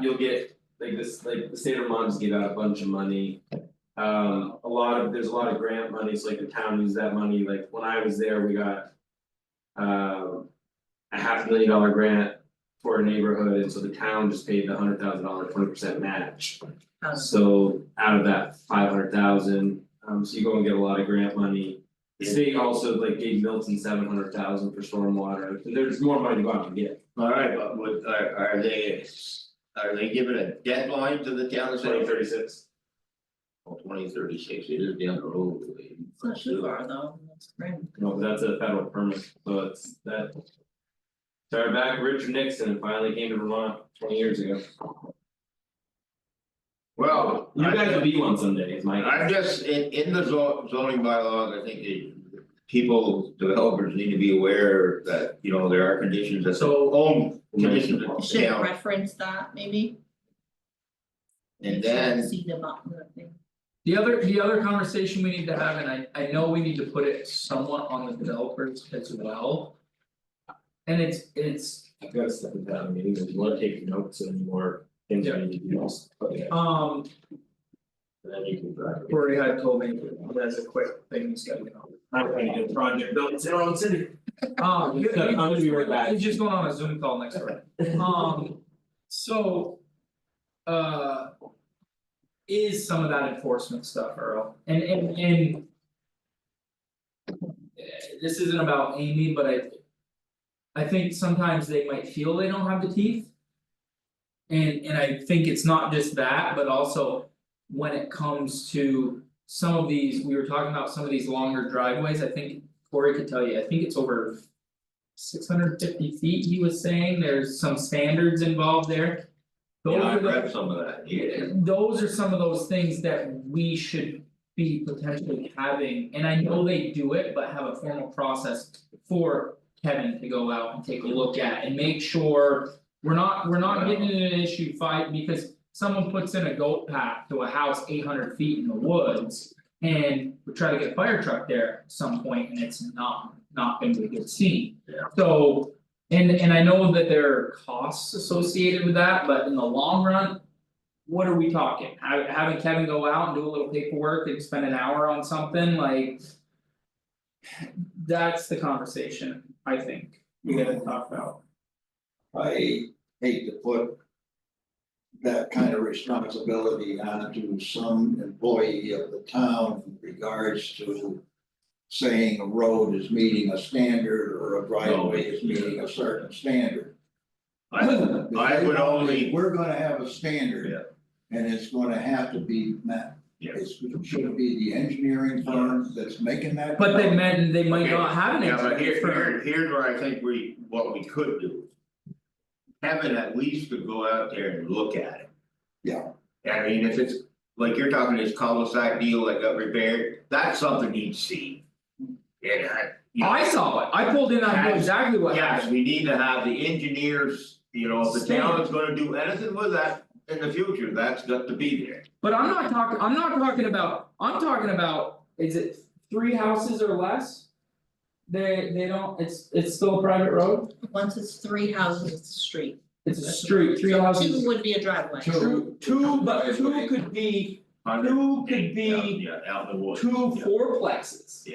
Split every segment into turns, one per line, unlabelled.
You'll get, like this, like the state of Vermont just gave out a bunch of money. Um, a lot of, there's a lot of grant monies, like the town used that money, like when I was there, we got. Um, a half million dollar grant for a neighborhood, and so the town just paid the hundred thousand dollar twenty percent match.
Um.
So out of that five hundred thousand, um, so you go and get a lot of grant money. The state also like gave Milton seven hundred thousand for stormwater, and there's more money to go out and get.
Alright, but would, are are they, are they giving a deadline to the town of
Twenty
Santa Fe?
thirty six.
Twenty thirty six, it is down the road.
It's not too far though, that's great.
No, but that's a federal permit, so it's that. Started back, Richard Nixon and finally came to Vermont twenty years ago.
Well,
You guys will be one someday, is my.
I'm just, in in the zo- zoning bylaws, I think the people, developers need to be aware that, you know, there are conditions that.
So-
Home conditions
Oh,
that
Should
stay down,
reference that maybe?
and
Make sure to
then,
See the bottom of the thing.
The other, the other conversation we need to have, and I I know we need to put it somewhat on the developers as well. And it's it's
I've got to step into that meeting, if you wanna take notes anymore, things I need to do, else, okay,
um
then you can drive.
Corey had told me that's a quick thing he's got to know.
I'm trying to get a project built in Salem City.
Um,
I'm gonna be right back.
He's just going on a Zoom call next door. Um, so. Uh. Is some of that enforcement stuff, Earl, and and and. eh, This isn't about Amy, but I. I think sometimes they might feel they don't have the teeth. And and I think it's not just that, but also when it comes to some of these, we were talking about some of these longer driveways, I think Corey could tell you, I think it's over six hundred fifty feet, he was saying, there's some standards involved there.
yeah,
Those
I
are the-
read some of that, yeah.
those are some of those things that we should be potentially having, and I know they do it, but have a formal process for Kevin to go out and take a look at and make sure. We're not, we're not getting into an issue fight because someone puts in a goat path to a house eight hundred feet in the woods. And we try to get a fire truck there at some point and it's not, not been a good scene.
Yeah.
So, and and I know that there are costs associated with that, but in the long run, what are we talking? Ha- Having Kevin go out and do a little paperwork and spend an hour on something like. That's the conversation, I think,
Hmm.
we gotta talk about.
I hate to put. That kind of responsibility onto some employee of the town in regards to. Saying a road is meeting a standard or a driveway is meeting a certain standard.
I I would only,
We're gonna have a standard.
Yeah.
And it's gonna have to be met.
Yeah.
It's, it should be the engineering firm that's making that.
But they meant they might
Okay.
not have an
yeah,
answer
but here here here's where I think we, what we could do. Having at least to go out there and look at it.
Yeah,
I mean, if it's, like you're talking this cul-de-sac deal that got repaired, that's something you'd see. And I, you know,
I saw it, I pulled in, I knew
Yes.
exactly what
yes,
happened,
we need to have the engineers, you know, if the town is gonna do anything with that in the future, that's got to be there.
but I'm not talking, I'm not talking about, I'm talking about, is it three houses or less? They they don't, it's it's still a private road,
Once it's three houses, it's a street.
it's a street, three
So
houses.
Two would be a driveway.
Two.
Two, two, but two could be, two could be
Yeah, yeah, out in the woods.
two
Yeah,
fourplexes.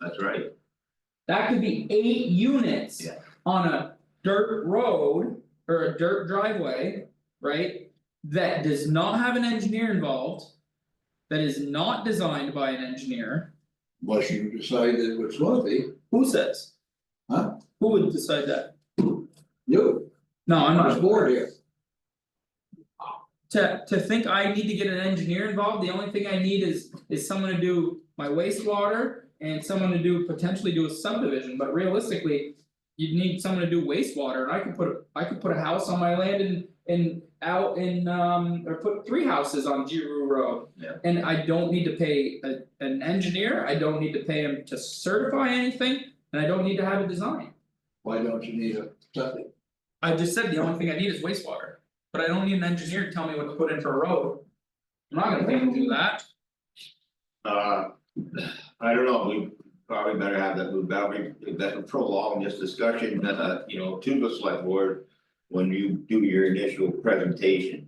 That's right,
That could be eight units
Yeah.
on a dirt road or a dirt driveway, right? That does not have an engineer involved. That is not designed by an engineer.
unless you decide that it's worthy,
Who says?
Huh?
Who would decide that?
you,
No, I'm
this
not,
board here.
to to think I need to get an engineer involved, the only thing I need is is someone to do my wastewater. And someone to do potentially do a subdivision, but realistically. You'd need someone to do wastewater, and I could put, a I could put a house on my land and and out in um, or put three houses on Giroux Road.
Yeah.
And I don't need to pay a an engineer, I don't need to pay him to certify anything, and I don't need to have a design.
Why don't you need a septic?
I just said the only thing I need is wastewater, but I don't need an engineer to tell me what to put in for a road. I'm not gonna pay him to do that,
uh, I don't know, we probably better have that, we better, that prolong this discussion, uh, you know, to the select board. when you do your initial presentation.